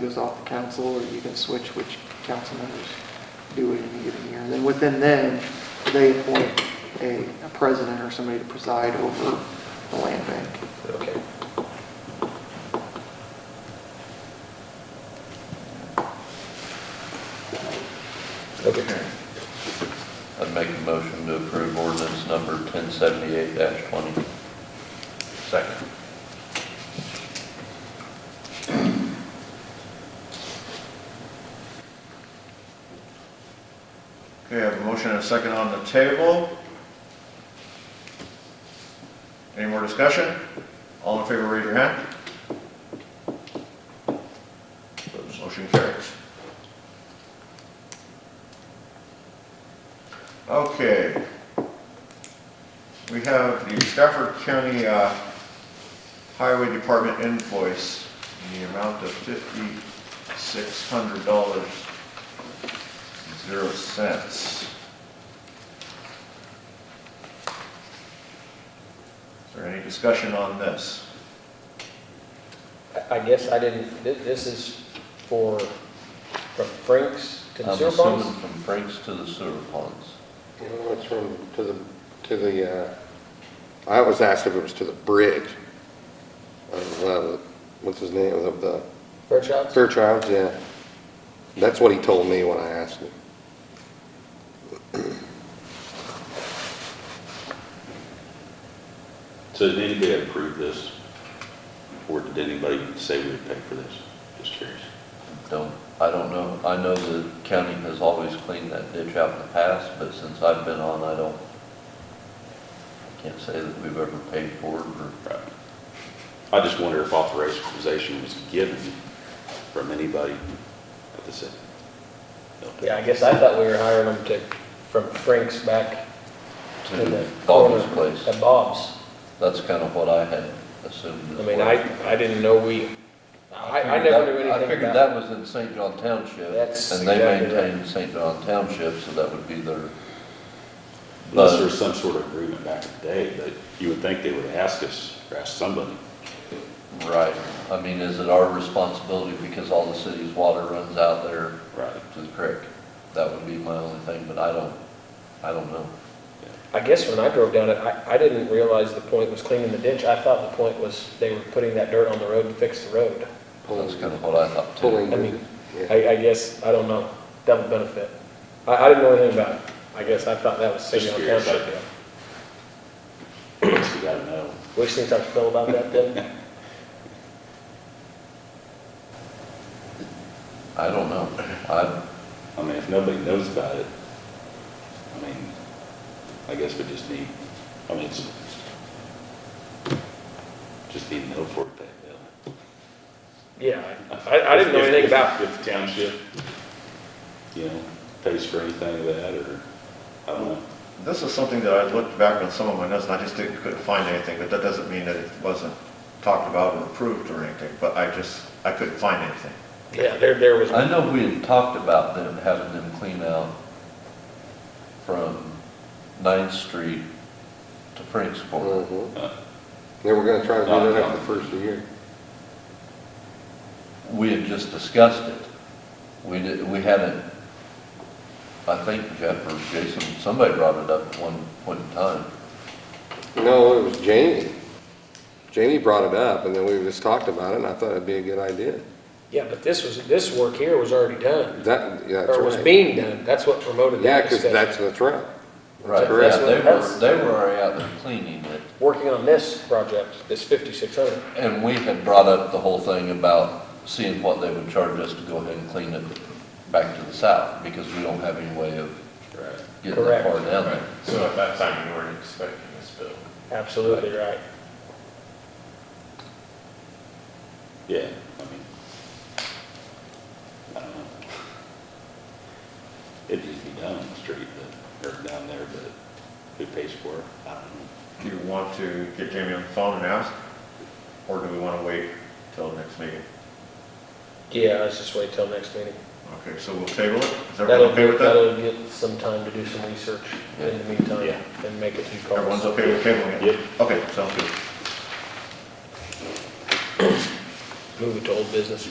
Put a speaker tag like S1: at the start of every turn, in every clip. S1: goes off the council, or you can switch which council members do it in a given year. And then within then, they appoint a a president or somebody to preside over the land bank.
S2: Okay. Public hearing.
S3: I'd make a motion to approve ordinance number 1078-20. Second.
S4: Okay, I have a motion and a second on the table. Any more discussion? All in favor, raise your hand. Opposed, Motion carries. Okay. We have the Stafford County uh, Highway Department invoice in the amount of fifty-six hundred dollars, zero cents. Is there any discussion on this?
S2: I I guess I didn't, thi- this is for, from Frank's to the
S3: I'm
S2: sewer
S3: assuming
S2: ponds?
S3: from Frank's to the sewer ponds.
S5: No, it's from, to the, to the, uh, I was asked if it was to the bridge of, uh, what's his name, of the
S2: Fairchild's?
S5: Fairchilds, yeah. That's what he told me when I asked him.
S6: So did anybody approve this? Or did anybody say we would pay for this? Just curious.
S3: Don't, I don't know, I know the county has always cleaned that ditch out in the past, but since I've been on, I don't, I can't say that we've ever paid for it or
S6: Right. I just wonder if authorization was given from anybody at the city.
S2: Yeah, I guess I thought we were hiring them to, from Frank's back to the
S3: to
S2: corner.
S3: Bobby's place.
S2: At Bob's.
S3: That's kind of what I had assumed.
S2: I
S3: as
S2: mean,
S3: well.
S2: I, I didn't know we, I, I never knew anything about it.
S3: I figured that was in St. John Township.
S2: That's
S3: And they
S2: exactly right.
S3: maintain St. John Township, so that would be their,
S6: Unless there's some sort of agreement back in the day, but you would think they would ask us, or ask somebody.
S3: right. I mean, is it our responsibility because all the city's water runs out there
S6: Right.
S3: to the creek? That would be my only thing, but I don't, I don't know.
S2: I guess when I drove down it, I, I didn't realize the point was cleaning the ditch. I thought the point was they were putting that dirt on the road to fix the road.
S3: That's kind of what I thought too.
S5: Pulling.
S2: I mean,
S5: Yeah.
S2: I, I guess, I don't know, double benefit. I, I didn't know anything about it. I guess I thought that was city
S6: Just
S2: on
S6: curious.
S2: township. deal.
S6: I guess we gotta know.
S2: We just need to talk to Phil about that then.
S3: I don't know. I,
S6: I mean, if nobody knows about it, I mean, I guess we just need, I mean, it's, just need to know for it that, bill.
S2: Yeah, I, I didn't know anything about it.
S6: If the township, you know, pays for anything of that, or, I don't know.
S4: This is something that I looked back on some of my notes, and I just didn't, couldn't find anything, but that doesn't mean that it wasn't talked about or approved or anything, but I just, I couldn't find anything.
S2: Yeah, there, there was,
S3: I know we had talked about them, having them clean out from Ninth Street to Frank's Corner.
S5: Mhm.
S6: Uh,
S5: They were gonna try to do that after the first year.
S3: we had just discussed it. We did, we hadn't, I think Jeff or Jason, somebody brought it up at one point in time.
S5: No, it was Jamie. Jamie brought it up, and then we just talked about it, and I thought it'd be a good idea.
S2: yeah, but this was, this work here was already done,
S5: That, yeah, that's right.
S2: or was being done. That's what promoted
S5: Yeah,
S2: that
S5: because
S2: discussion.
S5: that's, that's right.
S3: Right, yeah,
S5: correct.
S3: they were,
S2: That's-
S3: they were already out there cleaning it,
S2: Working on this project, this fifty-six hundred.
S3: and we had brought up the whole thing about seeing what they would charge us to go ahead and clean it back to the south, because we don't have any way of
S6: Right.
S3: getting that
S2: Correct.
S3: far down there.
S7: So at that time, you weren't expecting this bill?
S2: Absolutely right.
S6: Yeah, I mean, I don't know. It needs to be done on the street, but, or down there, but who pays for it? I don't know.
S4: Do you want to get Jamie on the phone and ask, or do we want to wait till the next meeting?
S2: Yeah, let's just wait till next meeting.
S4: Okay, so we'll table it? Is
S2: That'll,
S4: everyone okay with that?
S2: that'll get some time to do some research in the meantime
S6: Yeah.
S2: and make a few calls.
S4: Everyone's okay with tabling it?
S6: Yep.
S4: Okay, sounds good.
S2: Move it to old business.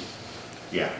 S4: yeah.